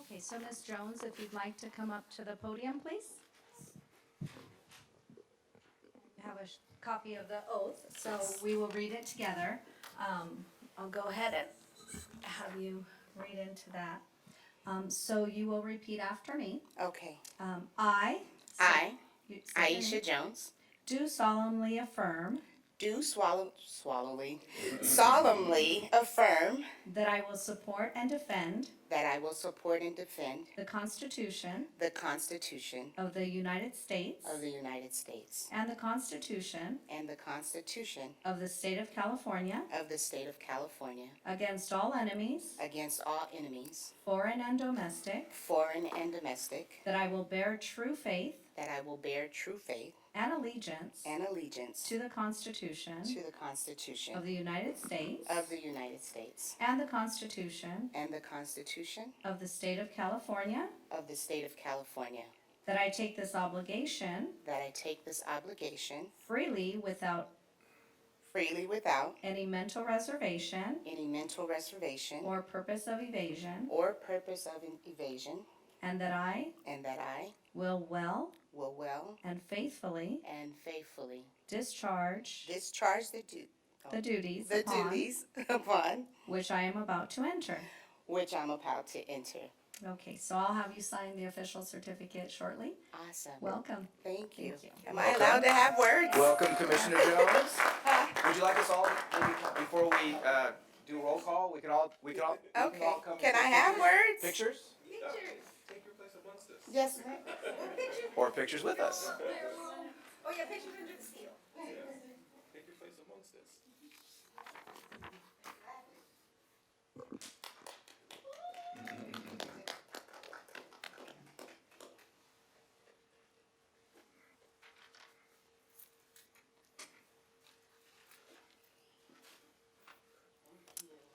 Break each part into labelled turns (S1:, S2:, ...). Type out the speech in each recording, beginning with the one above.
S1: Okay, so Ms. Jones, if you'd like to come up to the podium, please. You Have a sh- copy of the oath, so we will read it together. Um, I'll go ahead and have you read into that. Um, So you will repeat after me.
S2: Okay.
S1: Um, I.
S2: I,
S1: You- say your
S2: Aisha
S1: name.
S2: Jones,
S1: Do solemnly affirm
S2: do swallow, swallowly, solemnly affirm
S1: that I will support and defend
S2: that I will support and defend
S1: the Constitution
S2: the Constitution
S1: of the United States
S2: of the United States
S1: and the Constitution
S2: and the Constitution
S1: of the State of California
S2: of the State of California
S1: against all enemies,
S2: against all enemies,
S1: foreign and domestic,
S2: foreign and domestic,
S1: that I will bear true faith
S2: that I will bear true faith
S1: and allegiance
S2: and allegiance
S1: to the Constitution
S2: to the Constitution
S1: of the United States
S2: of the United States
S1: and the Constitution
S2: and the Constitution
S1: of the State of California,
S2: of the State of California,
S1: that I take this obligation
S2: that I take this obligation
S1: freely without
S2: freely without
S1: any mental reservation
S2: any mental reservation
S1: or purpose of evasion,
S2: or purpose of an evasion,
S1: and that I
S2: and that I
S1: will well
S2: will well
S1: and faithfully
S2: and faithfully
S1: discharge
S2: discharge the, du-
S1: the duties
S2: the
S1: upon
S2: duties upon
S1: which I am about to enter.
S2: which I'm about to enter.
S1: Okay, so I'll have you sign the official certificate shortly.
S2: Awesome.
S1: Welcome.
S2: thank you.
S1: thank you.
S2: Am I allowed to have words?
S3: Welcome, Commissioner Jones. Would you like us all, maybe before we uh, do a roll call, we could all, we could all, we can
S2: Okay.
S3: all come. and
S2: Can I
S3: take
S2: have words?
S3: Pictures?
S4: Take your place amongst us.
S2: Yes, ma'am.
S3: Or pictures with us?
S5: Oh, yeah, pictures under the seal.
S4: Take your place amongst us.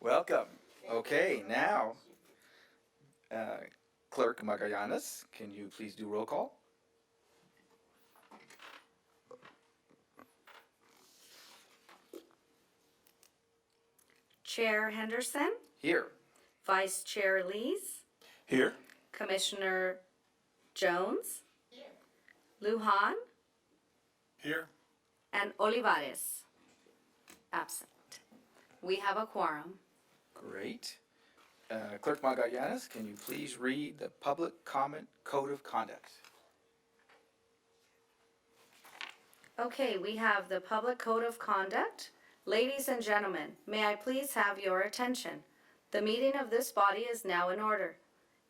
S3: Welcome. Okay, now, uh, Clerk Magallanes, can you please do roll call?
S1: Chair Henderson,
S3: Here.
S1: Vice Chair Lees,
S3: Here.
S1: Commissioner Jones, Luhan,
S3: Here.
S1: and Olivares. Absent. We have a quorum.
S3: Great. Uh, Clerk Magallanes, can you please read the public comment code of conduct?
S1: Okay, we have the Public Code of Conduct. Ladies and gentlemen, may I please have your attention? The meeting of this body is now in order.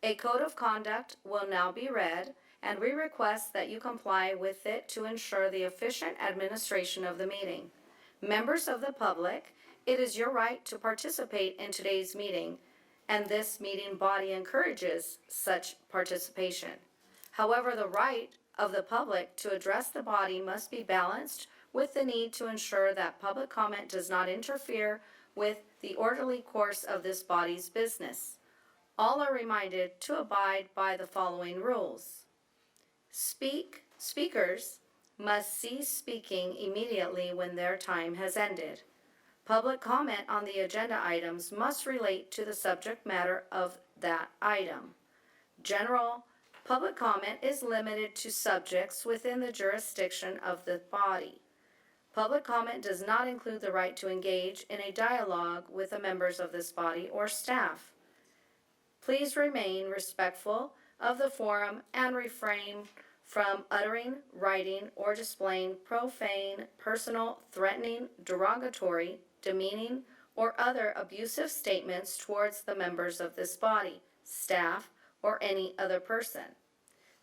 S1: A code of conduct will now be read, and we request that you comply with it to ensure the efficient administration of the meeting. Members of the public, it is your right to participate in today's meeting, and this meeting body encourages such participation. However, the right of the public to address the body must be balanced with the need to ensure that public comment does not interfere with the orderly course of this body's business. All are reminded to abide by the following rules. Speak, speakers must cease speaking immediately when their time has ended. Public comment on the agenda items must relate to the subject matter of that item. General public comment is limited to subjects within the jurisdiction of the body. Public comment does not include the right to engage in a dialogue with the members of this body or staff. Please remain respectful of the forum and refrain from uttering, writing, or displaying profane, personal, threatening, derogatory, demeaning, or other abusive statements towards the members of this body, staff, or any other person.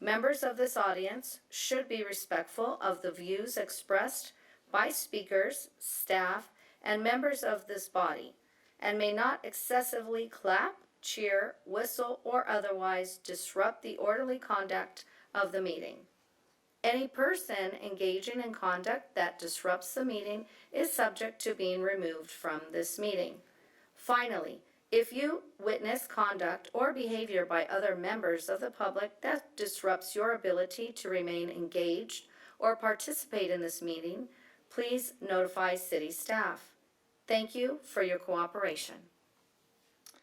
S1: Members of this audience should be respectful of the views expressed by speakers, staff, and members of this body, and may not excessively clap, cheer, whistle, or otherwise disrupt the orderly conduct of the meeting. Any person engaging in conduct that disrupts the meeting is subject to being removed from this meeting. Finally, if you witness conduct or behavior by other members of the public that disrupts your ability to remain engaged or participate in this meeting, please notify city staff. Thank you for your cooperation.